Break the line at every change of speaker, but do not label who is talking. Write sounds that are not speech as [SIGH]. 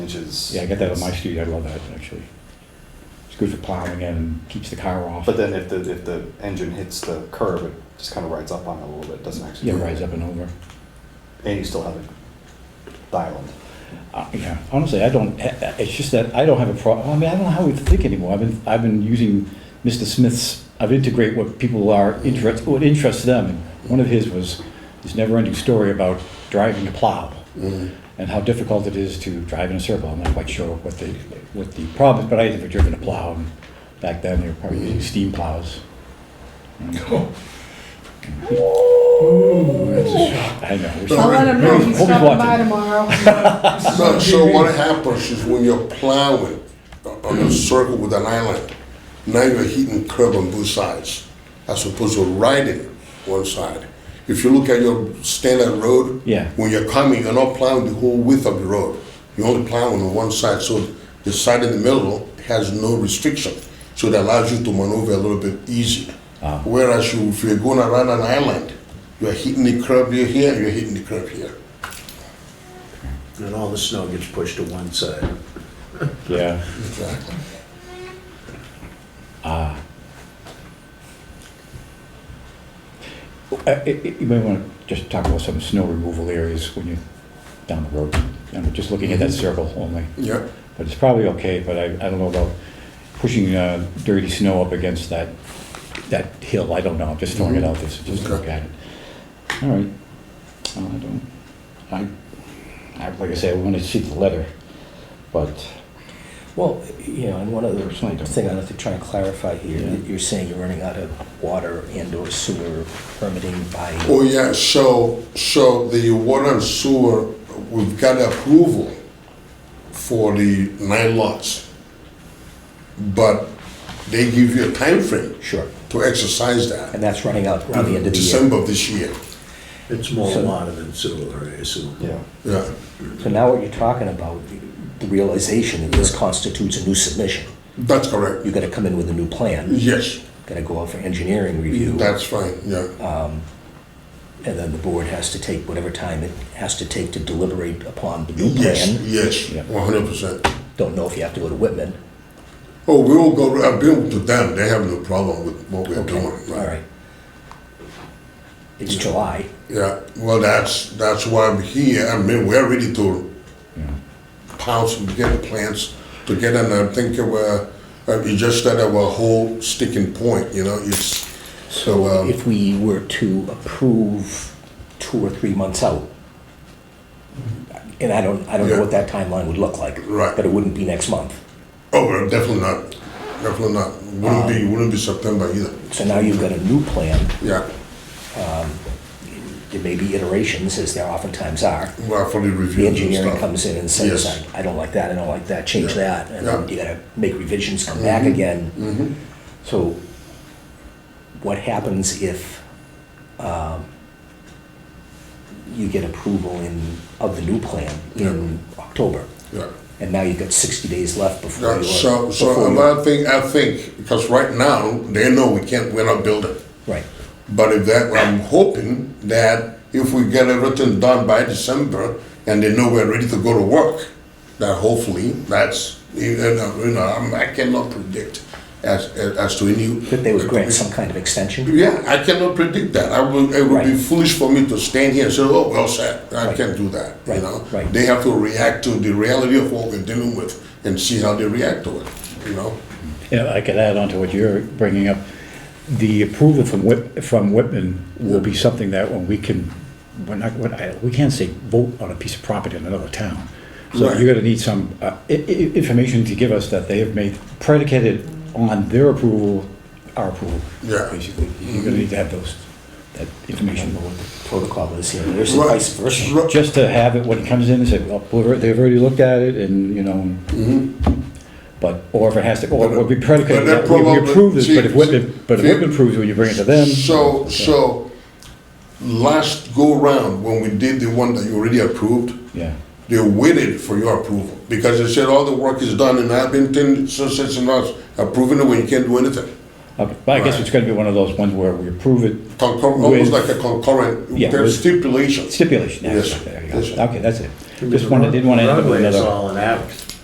which is.
Yeah, I got that on my street, I love that, actually. It's good for plowing and keeps the car off.
But then if the, if the engine hits the curb, it just kind of rides up on it a little bit, doesn't actually.
Yeah, rides up and over.
And you still have it dialed.
Uh, Yeah, honestly, I don't, eh, it's just that I don't have a problem, I mean, I don't know how we think anymore. I've been, I've been using Mr. Smith's, I've integrate what people are interested, what interests them. And One of his was this never-ending story about driving a plow and how difficult it is to drive in a circle. I'm not quite sure what the, what the problem is, but I had never driven a plow. and Back then, they were probably using steam plows.
[LAUGHS] Ooh, that's a shock.
I know. it was-
All
I'll let him know he's
Hope he's
stopping by
watching.
tomorrow.
So-
So, so what happens is when you're plowing on a circle with an island, now you're hitting curb on both sides as opposed to riding one side. If you look at your standard road,
Yeah.
when you're coming, you're not plowing the whole width of the road. You're only plowing on one side, so the side in the middle has no restriction. So it allows you to maneuver a little bit easier. Whereas you, if you're going around an island, you're hitting the curb here, you're hitting the curb here.
And all the snow gets pushed to one side.
Yeah.
Exactly.
Ah. Uh, i- i- You may want to just talk about some snow removal areas when you're down the road. I'm just looking at that circle only,
Yeah.
but it's probably okay, but I, I don't know about pushing uh, dirty snow up against that, that hill, I don't know, I'm just throwing it out there, so just look
Okay.
at it. All right, Well, I don't, I, I, like I say, I want to see the letter, but,
Well, you know, and one other
Personally, I don't.
thing I'd like to try and clarify here,
Yeah.
that you're saying you're running out of water and or sewer permitting by,
Oh, yeah, so, so the water and sewer, we've got approval for the nine lots. But they give you a time frame
sure,
to exercise that,
and that's running out around the end of the year.
December of this year,
It's more
So-
water than sewer, I assume.
Yeah.
yeah.
So now what you're talking about, the realization that this constitutes a new submission.
That's correct,
You gotta come in with a new plan,
yes,
gotta go out for engineering review,
that's fine,
Uh,
yeah,
and then the board has to take whatever time it has to take to deliberate upon the new
yes,
plan.
Yeah.
yes, one hundred percent.
Don't know if you have to go to Whitman.
Oh, we'll go, I've been to them, they have no problem with what we're
Okay,
doing,
all right. It's July.
Yeah, well, that's, that's why I'm here. I mean, we're ready to pounce and get plants together, and I think we're, uh, you just said our whole sticking point, you know, it's, so, um,
If we were to approve two or three months out, and I don't, I don't know what that timeline would look like.
Right.
But it wouldn't be next month.
oh, well, definitely not, definitely not. Wouldn't be,
Um,
wouldn't be September either.
So now you've got a new plan.
Yeah,
There may be iterations, as there oftentimes are.
well, for the
The
review and
engineering
stuff.
comes in and says,
Yes.
I I don't like that, I don't like that, change that. And then
Yeah. Mm-hmm.
you gotta make revisions, come back again. So what happens if um, you get approval in, of the new plan in October?
Yeah.
And now you've got 60 days left before
Yeah,
you.
so, so, but I think, I think, because right now, they know we can't, we're not building.
Right,
But if that, I'm hoping that if we get everything done by December and they know we're ready to go to work, that hopefully that's, you know, you know, I'm- I cannot predict as, as to any.
that they would grant some kind of extension?
Yeah, I cannot predict that. I will, it would be
Right.
foolish for me to stand here and say, oh, well said. I
Right.
can't do that, you
Right,
know?
right.
They have to react to the reality of what we're dealing with and see how they react to it, you know?
yeah, I could add on to what you're bringing up. The approval from Whit, from Whitman will be something that when we can, we're not, what I- we can't say vote on a piece of property in another town. So
Right.
you're gonna need some, uh, i- i- information to give us that they have made predicated on their approval, our approval.
Yeah.
Basically, you're gonna need to have those, that information.
Protocol is here, there's
Right.
vice versa.
Right.
Just to have it when it comes in and say, well, we've already- they've already looked at it and, you know, but, or if it has to, or it would be predicated,
Mm-hmm. But that
that we- we
probably-
approve this, but if
see,
Whitman, but if
see-
Whitman approves it, when you bring it to them.
So, so, last go round, when we did the one that you already approved,
Yeah,
they waited for your approval, because they said all the work is done in Abington, so, so, so, not approving it when you can't do anything.
Okay, but I guess
Right.
it's gonna be one of those ones where we approve it,
Concur, almost
With-
like a concurrent,
Yeah,
there's
with-
stipulations.
stipulation,
Yes,
actually, there you
yes, sir.
go, okay, that's it. Just wanted, didn't wanna end up with
Roadway is
another.
all an avenue.